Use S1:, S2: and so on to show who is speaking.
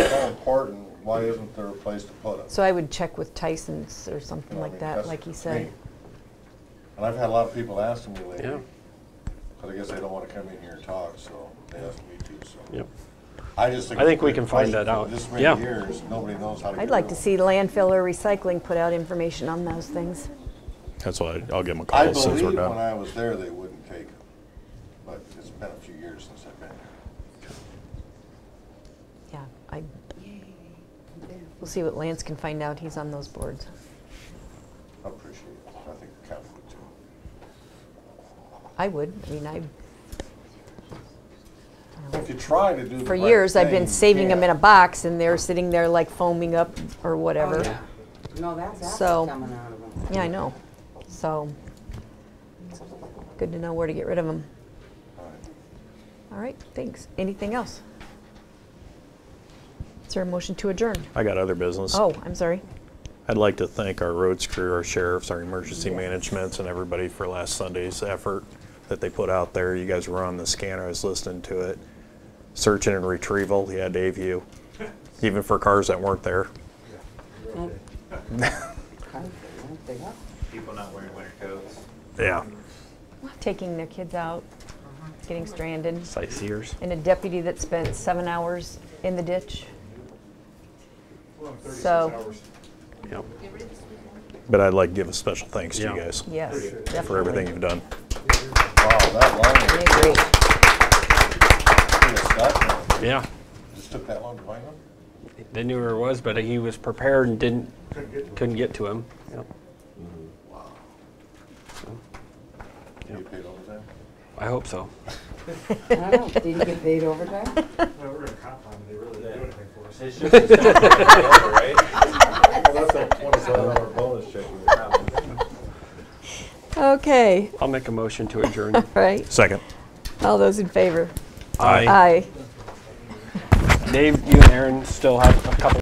S1: important, why isn't there a place to put it?
S2: So I would check with Tyson's or
S1: You
S2: something
S1: know, I
S2: like
S1: mean,
S2: that,
S1: that's
S2: like he
S1: me.
S2: said.
S1: And I've had a lot of people ask me
S3: Yeah.
S1: lately, because I guess they don't want to come in here and talk, so they ask me to, so.
S3: Yep.
S1: I just think.
S3: I think we
S1: it's been
S3: can find
S1: present
S3: that
S1: for
S3: out.
S1: This many
S3: Yeah.
S1: years, nobody knows how to. get
S2: I'd like
S1: rid
S2: to
S1: of
S2: see landfill or recycling put out information on those things.
S4: That's why I'll give them a
S1: I
S4: call as soon as
S1: believe
S4: we're
S1: when
S4: done.
S1: I was there, they wouldn't take them, but it's been a few years since I've been there.
S2: Yeah, I, we'll see what Lance can find out. He's on those boards.
S1: I appreciate it. I think the county would too.
S2: I would, I mean, I,
S1: If you try to do the
S2: for
S1: right
S2: years, I've
S1: thing,
S2: been
S1: you
S2: saving them in a
S1: can't.
S2: box and they're sitting there like foaming up or whatever.
S5: Oh, yeah. No, that's
S2: So-
S5: acid coming out of them.
S2: Yeah, I know. So, good to know where to get rid of them.
S1: All right.
S2: All right, thanks. Anything else? Is there a motion to adjourn?
S4: I got other business.
S2: Oh, I'm sorry.
S4: I'd like to thank our roads crew, our sheriffs, our emergency managements, and everybody for last Sunday's effort that they put out there. You guys were on the scanner, I was listening to it. Searching and retrieval, yeah, Dave, you, even for cars that weren't there.
S5: Okay, weren't they up?
S6: people not wearing winter coats.
S4: Yeah.
S2: Taking their kids out, getting stranded,
S4: Sightseers.
S2: and a deputy that spent seven hours in the ditch. So,
S3: Yep.
S4: But I'd like to give a special thanks to you
S3: Yeah.
S4: guys
S2: yes, definitely.
S4: for everything you've done.
S1: Wow, that
S2: I
S1: line,
S2: agree.
S3: Yeah.
S1: just took that long to find them?
S3: They knew where it was, but he was prepared and didn't couldn't get to him. Yep.
S1: You get paid overtime?
S3: I hope so.
S5: I don't, did you get paid overtime?
S7: No, we're gonna cop on, they really didn't do anything for us.
S6: It's just a story altogether, right?
S1: Well, that's a twenty-seven hour bonus check.
S2: Okay,
S3: I'll make a motion to adjourn.
S2: right.
S4: Second.
S2: All those in favor?
S3: Aye.
S2: Aye.
S3: Dave, you and Aaron still have a couple